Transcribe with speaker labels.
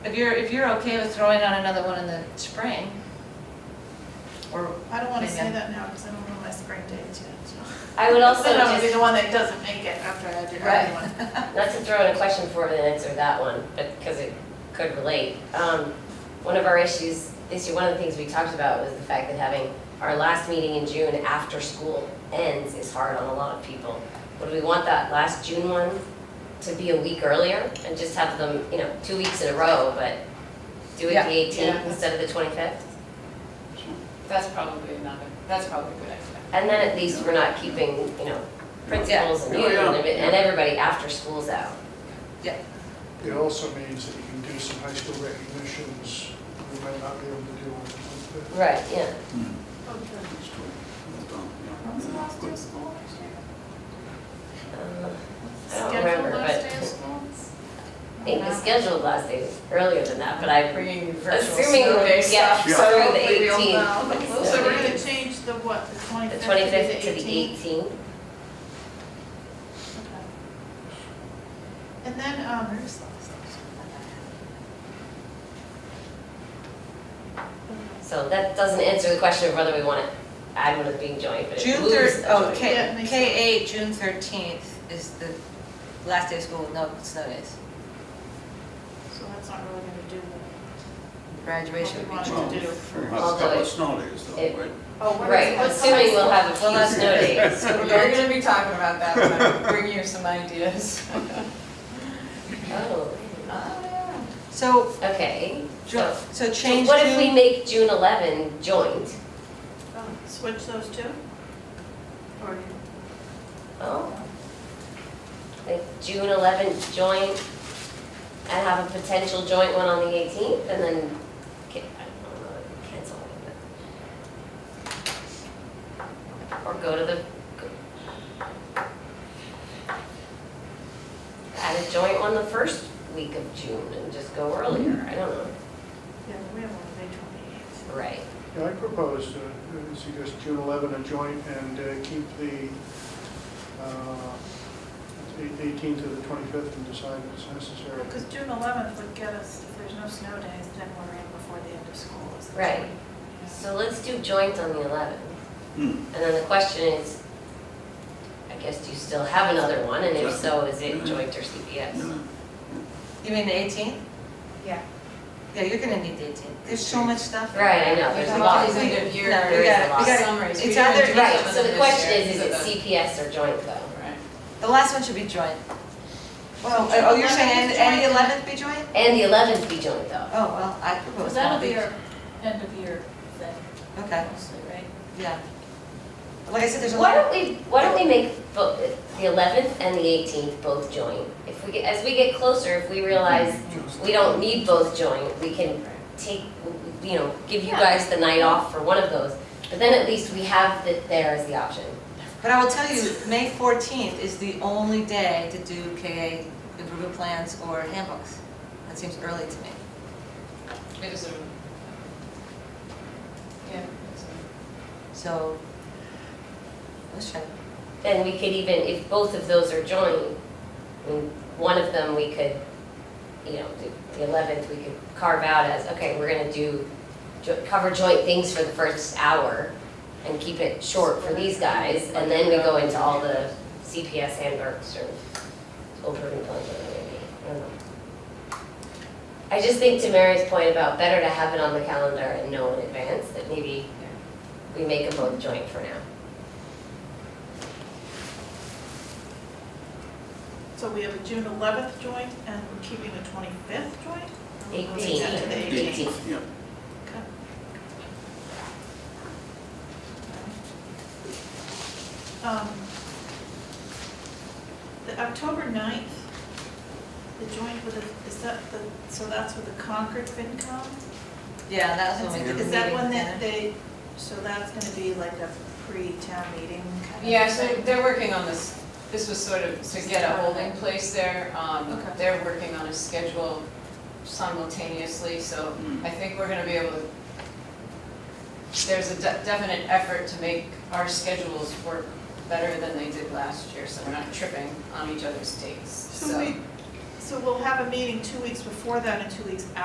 Speaker 1: If you're, if you're okay with throwing on another one in the spring, or,
Speaker 2: I don't wanna say
Speaker 1: Maybe.
Speaker 2: that now, because I don't know my spring dates yet, so.
Speaker 3: I would also
Speaker 2: Then I would be
Speaker 3: just,
Speaker 2: the one that doesn't make it after I do
Speaker 1: Right.
Speaker 2: everyone.
Speaker 3: not to throw in a question before we answer that one, but, because it could relate. Um, One of our issues, issue, one of the things we talked about was the fact that having our last meeting in June after school ends is hard on a lot of people. Would we want that last June one to be a week earlier and just have them, you know, two weeks in a row, but do it
Speaker 1: Yeah.
Speaker 3: the eighteenth instead of the twenty-fifth?
Speaker 4: That's probably another, that's probably a good idea.
Speaker 3: And then at least we're not keeping, you know, principals and you
Speaker 5: Yeah.
Speaker 3: and every- and everybody after school's out.
Speaker 5: It also means that you can do some high school recognitions we might not be able to do on the twenty-fifth.
Speaker 3: Right, yeah.
Speaker 2: When's the last day of school next year?
Speaker 3: Uh, I don't
Speaker 2: Scheduled
Speaker 3: remember,
Speaker 2: last day of
Speaker 3: but
Speaker 2: school?
Speaker 3: I think the scheduled last day was earlier than that, but I,
Speaker 4: Bringing virtual
Speaker 3: assuming,
Speaker 4: snow day
Speaker 3: yeah,
Speaker 4: stuff.
Speaker 3: through
Speaker 4: so
Speaker 3: the
Speaker 4: hopefully we'll know.
Speaker 3: eighteenth.
Speaker 2: So we're gonna change the what, the
Speaker 3: The
Speaker 2: twenty-fifth to the
Speaker 3: twenty-fifth to the
Speaker 2: eighteenth?
Speaker 3: eighteenth.
Speaker 2: Okay. And then, um, where's the last day of school?
Speaker 3: So that doesn't answer the question of whether we want it add one as being joint, but it
Speaker 1: June
Speaker 3: moves.
Speaker 1: third,
Speaker 3: the
Speaker 1: oh,
Speaker 2: Yeah,
Speaker 3: joint.
Speaker 1: K,
Speaker 2: it makes
Speaker 1: K eight, June thirteenth is the last day of school, with no snow days.
Speaker 2: So that's not really gonna do the,
Speaker 1: Graduation would be
Speaker 2: What we
Speaker 1: June.
Speaker 2: wanted to do.
Speaker 6: We'll have a couple of snow days
Speaker 3: It-
Speaker 6: though, right?
Speaker 2: Oh, what is
Speaker 3: Right,
Speaker 2: it? What's the
Speaker 3: assuming
Speaker 2: high
Speaker 3: we'll
Speaker 2: school?
Speaker 3: have a
Speaker 1: Well,
Speaker 3: few
Speaker 1: that's
Speaker 3: snow
Speaker 1: good.
Speaker 3: days.
Speaker 4: So we're gonna be talking about that when I bring you some ideas.
Speaker 3: Oh,
Speaker 1: So,
Speaker 3: okay.
Speaker 1: Ju- so
Speaker 3: So
Speaker 1: change
Speaker 3: What if we
Speaker 1: June,
Speaker 3: make June eleven joint?
Speaker 2: Oh, Switch those two? Or
Speaker 3: Oh. Like June eleventh joint and have a potential joint one on the eighteenth and then, ca- I don't know, cancel it. but- Or go to the. go- Add a joint on the first week of June and just go earlier, I don't know,
Speaker 2: Yeah, we have one on May twenty-eighth.
Speaker 3: right.
Speaker 5: Yeah, I proposed, uh, suggest June 11 a joint and uh, keep the uh, eight- 18 to the 25th and decide if it's necessary.
Speaker 2: Because June eleventh would get us, if there's no snow days, then we're in before the end of school. is the
Speaker 3: Right.
Speaker 2: 20. Yeah.
Speaker 3: So let's do joint on the eleventh.
Speaker 6: Hmm.
Speaker 3: And then the question is, I guess, do you still have another one, and if so, is it joint or CPS?
Speaker 1: you mean the eighteenth?
Speaker 4: Yeah.
Speaker 1: Yeah, you're gonna need the eighteenth, there's so much stuff.
Speaker 3: Right, I know, there's a
Speaker 1: Yeah.
Speaker 3: lot.
Speaker 1: It's
Speaker 4: End of
Speaker 1: No,
Speaker 4: year,
Speaker 1: we gotta- we gotta-
Speaker 4: summaries.
Speaker 1: it's
Speaker 4: We gotta
Speaker 1: either-
Speaker 4: do
Speaker 1: Right,
Speaker 3: Right,
Speaker 4: some of
Speaker 3: so the
Speaker 4: them
Speaker 3: question
Speaker 4: this
Speaker 3: is, is
Speaker 4: year,
Speaker 3: it
Speaker 4: so
Speaker 3: CPS or joint though?
Speaker 4: the- Right.
Speaker 1: The last one should be joint. Well, oh, you're saying, and- and the eleventh be joint?
Speaker 3: And the eleventh be joint though?
Speaker 1: Oh, well, I propose
Speaker 2: Because
Speaker 1: that.
Speaker 2: that'll be our end of year thing,
Speaker 1: Okay,
Speaker 2: mostly, right?
Speaker 1: yeah. Like I said, there's a
Speaker 3: Why
Speaker 1: lot,
Speaker 3: don't we, why don't we make both, the eleventh and the eighteenth both joint? If we, get as we get closer, if we realize we don't need both joint, we can take, you know, give you guys the night off for one of those. But then at least we have it there as the option.
Speaker 1: but I will tell you, May fourteenth is the only day to do KA improvement plans or handbooks. That seems early to me.
Speaker 4: It is a. Yeah. it's a-
Speaker 1: So, let's try.
Speaker 3: then we could even, if both of those are joint, I mean, one of them we could, you know, the- the eleventh, we could carve out as, okay, we're gonna do, jo- cover joint things for the first hour and keep it short for these guys, and then we go into all the CPS handbooks or school improvement plans or whatever it may be. I don't know. I just think to Mary's point about better to have it on the calendar and know in advance that maybe we make them both joint for now.
Speaker 2: So we have a June eleventh joint and we're keeping the twenty-fifth joint? Or we're moving that to the
Speaker 3: 18th.
Speaker 2: 18th.
Speaker 3: Eighteenth.
Speaker 6: Yeah.
Speaker 2: Okay. Um, The October 9th, the joint with the, is that the, so that's with the Concord FinCom?
Speaker 1: Yeah, that was when we did the
Speaker 2: Is that
Speaker 1: meeting
Speaker 2: one
Speaker 1: planner.
Speaker 2: that they, so that's gonna be like a pre-town meeting kind of?
Speaker 4: Yeah, so
Speaker 2: thing?
Speaker 4: they're working on this, this was sort of to get a holding place there. Um,
Speaker 2: Okay.
Speaker 4: They're working on a schedule simultaneously, so
Speaker 6: Mm.
Speaker 4: I think we're gonna be able to, there's a de- definite effort to make our schedules work better than they did last year, so we're not tripping on each other's dates, so.
Speaker 2: So we, so we'll have a meeting two weeks before that and two weeks after